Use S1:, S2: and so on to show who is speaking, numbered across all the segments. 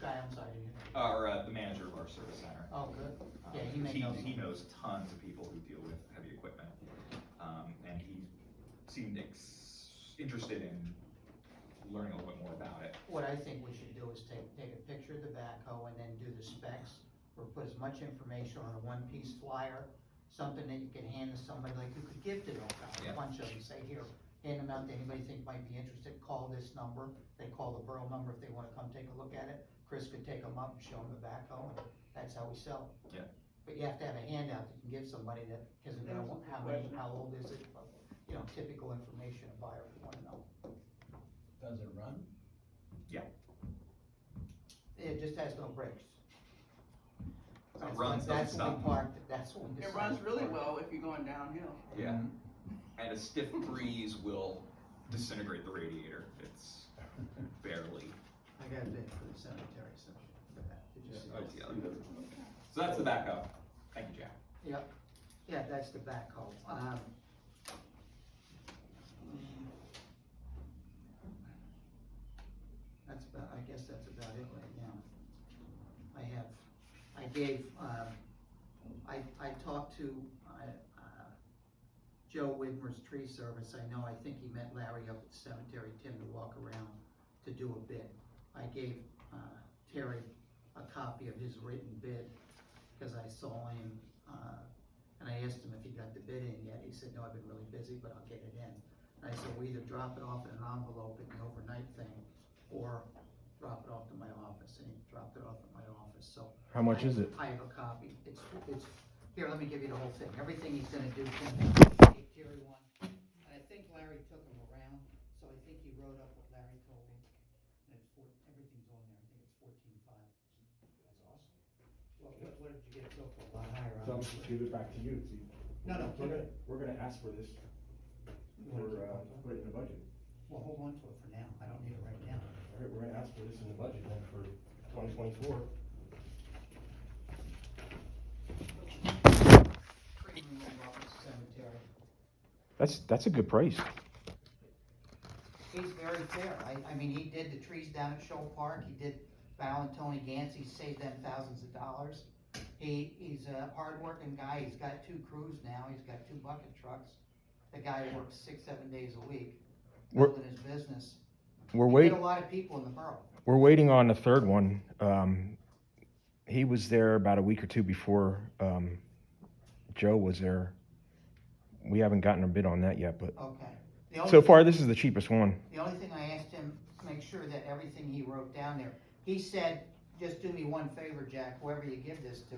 S1: town side of you?
S2: Our, uh, the manager of our service center.
S1: Oh, good.
S2: Um,
S1: Yeah, he may know
S2: He
S1: some.
S2: knows tons of people who deal with heavy equipment, um, and he seemed ex- interested in learning a little bit more about it.
S1: What I think we should do is take, take a picture of the backhoe and then do the specs, or put as much information on a one-piece flyer, something that you could hand to somebody, like you could give to them, a
S2: Yeah.
S1: bunch of them, say, here, hand them out to anybody you think might be interested, call this number, they call the borough number if they wanna come take a look at it, Chris could take them up and show them the backhoe, and that's how we sell.
S2: Yeah.
S1: But you have to have a handout that you can give somebody that isn't gonna, want how many, how old is it, but, you know, typical information a buyer would wanna know.
S3: Does it run?
S1: It just has no brakes.
S2: It
S1: That's
S2: runs,
S1: what- That's
S2: doesn't
S1: when we
S2: stop.
S1: parked, that's when we
S4: It
S1: decided
S4: runs
S1: to
S4: really
S1: park.
S4: well if you're going downhill.
S2: Yeah, and a stiff breeze will disintegrate the radiator. It's
S3: Mm-hmm.
S2: barely.
S1: I got a bid for the cemetery, so, for that, did you see?
S2: Oh, it's the other. So that's the backup. Thank you, Jack.
S1: Yep, yeah, that's the backhoe, um. That's about, I guess that's about it right now. I have, I gave, um, I, I talked to, uh, uh, Joe Widmer's tree service, I know, I think he met Larry up at the cemetery, Tim to walk around to do a bid. I gave, uh, Terry a copy of his written bid, cause I saw him uh, And I asked him if he got the bid in yet, he said, no, I've been really busy, but I'll get it in. And I said, we either drop it off in an envelope in the overnight thing, or drop it off to my office, and he dropped it off at my office, so.
S5: How much
S1: I-
S5: is it?
S1: I have a copy, it's, it's, here, let me give you the whole thing, everything he's gonna do, Tim, gave Jerry one, and I think Larry took him around, so I think he wrote up what Larry told me, and it's four, everything's on there, I think it's fourteen-five. That's awesome. Well, what, what did you get so for, a lot higher?
S6: So I'm
S1: obviously.
S6: just give it back to you, see.
S1: No, no,
S6: We're
S1: keep
S6: gonna,
S1: it.
S6: we're gonna ask for this,
S1: You
S6: for,
S1: wanna keep
S6: uh,
S1: on to it?
S6: put it in the budget.
S1: Well, hold on to it for now, I don't need it right now.
S6: All right, we're gonna ask for this in the budget then for twenty twenty-four.
S1: Premium Roberts Cemetery.
S5: That's that's a good price.
S1: He's very fair, I, I mean, he did the trees down at Shoal Park, he did Val and Tony Gans, he saved them thousands of dollars. He, he's a hardworking guy, he's got two crews now, he's got two bucket trucks. The guy works six, seven days a week,
S5: We're-
S1: building his business.
S5: We're
S1: He
S5: wait
S1: did a lot of people in the borough.
S5: we're waiting on the third one. Um, he was there about a week or two before um, Joe was there. We haven't gotten a bid on that yet, but
S1: Okay. The only
S5: so
S1: thing-
S5: far this is the cheapest one.
S1: The only thing I asked him, to make sure that everything he wrote down there, he said, just do me one favor, Jack, whoever you give this to,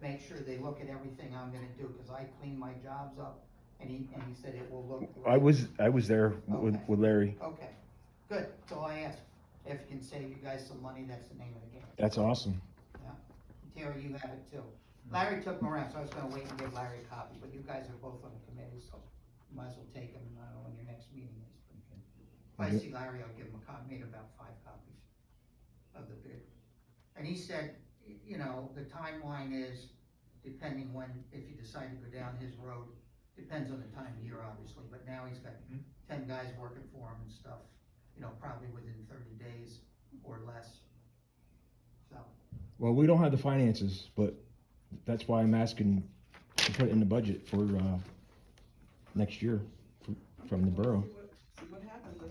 S1: make sure they look at everything I'm gonna do, cause I clean my jobs up, and he, and he said it will look.
S5: I was I was there with,
S1: Okay.
S5: with Larry.
S1: Okay, good, so I asked, if you can save you guys some money, that's the name of the game.
S5: That's awesome.
S1: Terry, you have it too. Larry took them around, so I was gonna wait and give Larry a copy, but you guys are both on the committee, so you might as well take them, I don't know when your next meeting is. but If I see Larry, I'll give him a copy, made about five copies of the bid. And he said, y- you know, the timeline is depending when, if you decide to go down his road, depends on the time of year, obviously, but now he's got
S2: Mhm.
S1: ten guys working for him and stuff, you know, probably within thirty days or less. So,
S5: Well, we don't have the finances, but that's why I'm asking to put it in the budget for uh, next year fr- from the borough.
S4: See what- See what happens.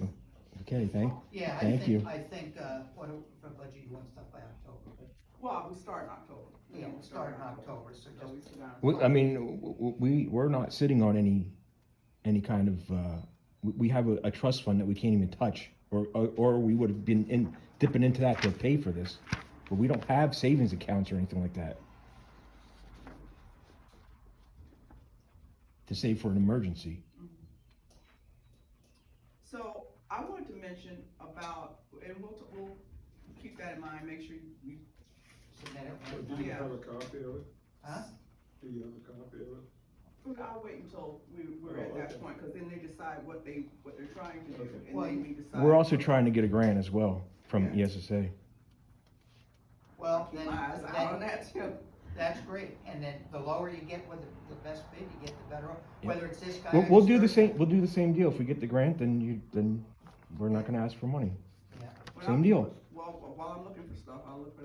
S5: Okay, thank
S1: Yeah, I
S5: Thank
S1: think,
S5: you.
S1: I think, uh, what, do- for budget, you want stuff by October, but,
S4: Well, we start in October.
S1: yeah, we'll start in October, so
S4: So
S1: just,
S4: we sit down.
S5: We, I mean, w- w- we, we're not sitting on any, any kind of, uh, we, we have a, a trust fund that we can't even touch. Or, or, or we would have been in, dipping into that to pay for this, but we don't have savings accounts or anything like that. To save for an emergency.
S4: So I wanted to mention about, and we'll, we'll keep that in mind, make sure you,
S1: submit it.
S7: Do
S1: right
S7: you
S1: now.
S4: Yeah.
S7: have a copy of it?
S1: Huh?
S7: Do you have a copy of it?
S4: I'll wait until we, we're at
S7: Oh,
S4: that
S7: okay.
S4: point, cause then they decide what they, what they're trying to do,
S7: Okay.
S4: and then we decide.
S5: We're also trying to get a grant as well from E
S4: Yeah.
S5: ESSA.
S1: Well,
S4: Keep
S1: then,
S4: my eyes out on
S1: then,
S4: that too.
S1: that's great, and then the lower you get with the, the best bid, you get the better, off.
S5: Yeah.
S1: whether it's this guy.
S5: We'll,
S1: or
S5: we'll
S1: this
S5: do the
S1: third
S5: same, we'll do the same deal. If we get the grant, then you, then we're not gonna ask for money.
S1: guy. Yeah.
S4: When
S5: Same
S4: I'm-
S5: deal.
S4: While, while I'm looking for stuff, I'll look for